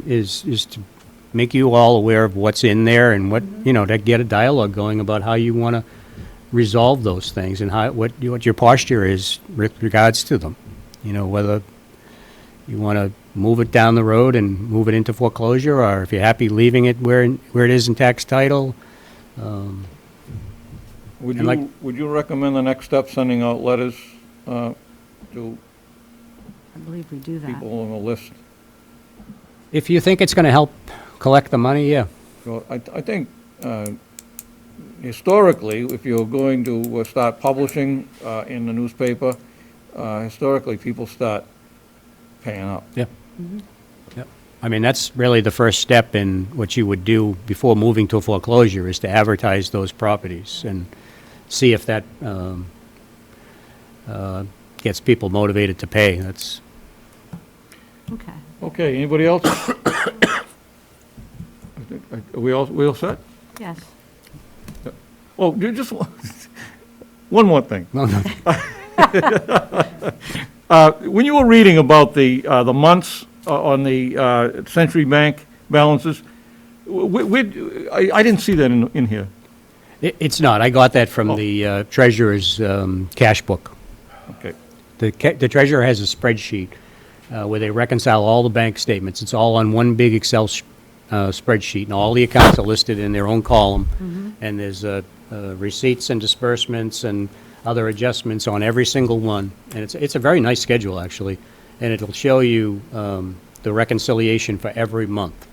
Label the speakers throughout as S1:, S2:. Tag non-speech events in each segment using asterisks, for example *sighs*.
S1: is, is to make you all aware of what's in there and what, you know, to get a dialogue going about how you want to resolve those things and how, what, you- what your posture is with regards to them. You know, whether you want to move it down the road and move it into foreclosure, or if you're happy leaving it where, where it is in tax title.
S2: Would
S1: And like-
S2: you, would you recommend the next step, sending out letters uh, to
S3: I believe we do that.
S2: people on the list?
S1: If you think it's going to help collect the money, yeah.
S2: So I, I think uh, historically, if you're going to uh, start publishing uh, in the newspaper, uh, historically, people start paying up.
S1: Yeah. Yep. I mean, that's really the first step in what you would do before moving to foreclosure, is to advertise those properties and see if that um, uh, gets people motivated to pay. That's, *laughs*
S3: Okay.
S2: Okay, anybody *coughs* else? I think- Are we all, we all set?
S3: Yes.
S2: Oh, you just, *laughs* one more thing.
S1: no, no,
S2: Uh, When you were reading about the, uh, the months uh, on the uh, Century Bank balances, wh- wh- I I didn't see that in, in here.
S1: it- it's not. I got that
S2: Oh.
S1: from the uh, treasurer's um, cash book.
S2: Okay.
S1: The ca- the treasurer has a spreadsheet uh, where they reconcile all the bank statements. It's all on one big Excel s- uh, spreadsheet, and all the accounts are listed in their own column. And there's uh, uh, receipts and disbursements and other adjustments on every single one. And it's, it's a very nice schedule, actually, and it'll show you um, the reconciliation for every month,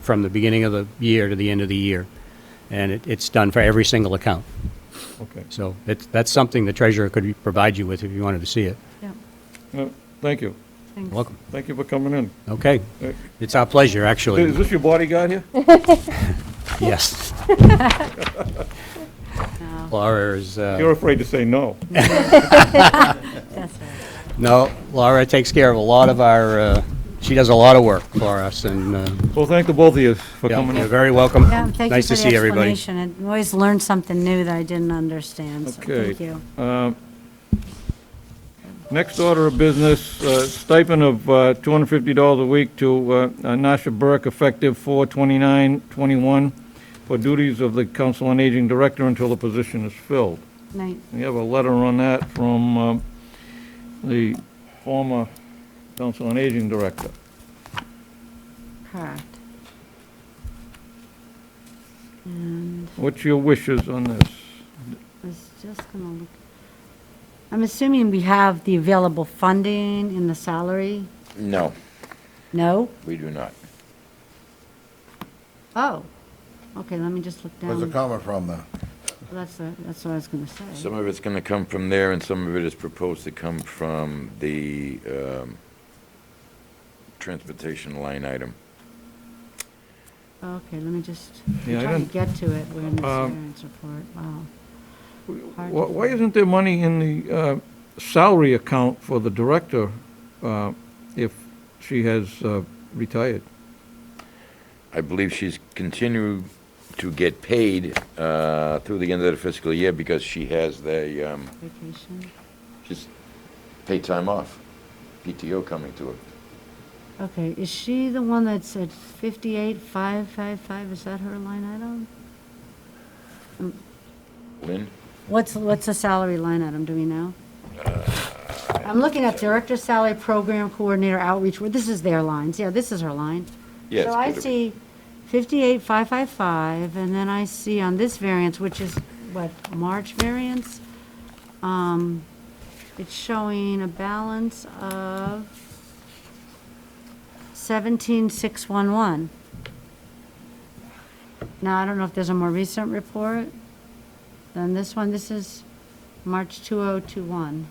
S1: from the beginning of the year to the end of the year. And it- it's done for every single account.
S2: Okay.
S1: So it's- that's something the treasurer could provide you with if you wanted to see it.
S3: Yep.
S2: No, Thank you.
S3: Thanks.
S1: Welcome.
S2: Thank you for coming in.
S1: Okay.
S2: Uh,
S1: It's our pleasure,
S2: Is
S1: actually.
S2: this your bodyguard here?
S1: Yes.
S3: No,
S1: Laura is, uh,
S2: You're afraid to say no.
S3: that's all right.
S1: no, Laura takes care of a lot of our, uh, she does a lot of work for us, and, uh,
S2: Well, thank the both of you for
S1: yeah,
S2: coming
S1: you're
S2: in.
S1: very welcome.
S3: Yeah, thank you
S1: Nice
S3: for
S1: to
S3: the
S1: see everybody.
S3: explanation. I always learn something new that I didn't understand, so
S2: Okay.
S3: thank you.
S2: Next order of business, uh, stipend of uh, $250 a week to uh, Nasha Burke, effective 4/29/21, for duties of the Council on Aging Director until the position is filled.
S3: Night.
S2: We have a letter on that from um, the former Council on Aging Director.
S3: Correct. And
S2: What's your wishes on this?
S3: I was just gonna look. I'm assuming we have the available funding in the salary?
S4: No,
S3: No?
S4: we do not.
S3: Oh. Okay, let me just look
S5: Where's it
S3: down.
S5: coming from, though?
S3: That's, the- that's what I was gonna say.
S4: Some of it's going to come from there, and some of it is proposed to come from the um, transportation line item.
S3: Okay, let me just,
S2: Yeah,
S3: I'm
S2: I
S3: trying
S2: don't-
S3: to get to it, we're in the
S2: Um,
S3: variance report, wow.
S2: Wh- Why isn't there money in the uh, salary account for the director uh, if she has uh, retired?
S4: I believe she's continued to get paid uh, through the end of the fiscal year because she has the, um,
S3: Vacation,
S4: she's paid time off, PTO coming to her.
S3: okay, is she the one that's at fifty-eight, five, five, five, is that her line item?
S4: Lynn?
S3: What's, what's the salary line item, do we know? I'm looking at director salary, program coordinator outreach, Well, this is their lines, yeah, this is her line.
S4: Yes.
S3: So I see fifty-eight, five, five, five, and then I see on this variance, which is, what, March variance? Um, it's showing a balance of seventeen, six, one, one. Now, I don't know if there's a more recent report than this one, this is March two oh two one.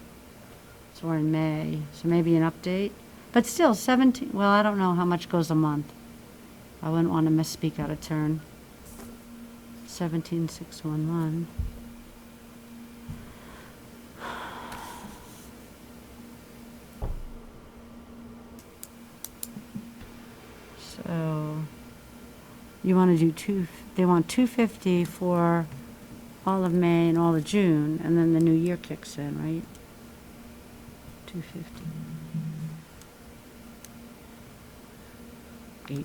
S3: So we're in May, so maybe an update, but still seventeen, well, I don't know how much goes a month. I wouldn't want to misspeak out of turn. Seventeen six one one. *sighs* So, you want to do two, they want two fifty for all of May and all of June, and then the new year kicks in, right? Two fifty.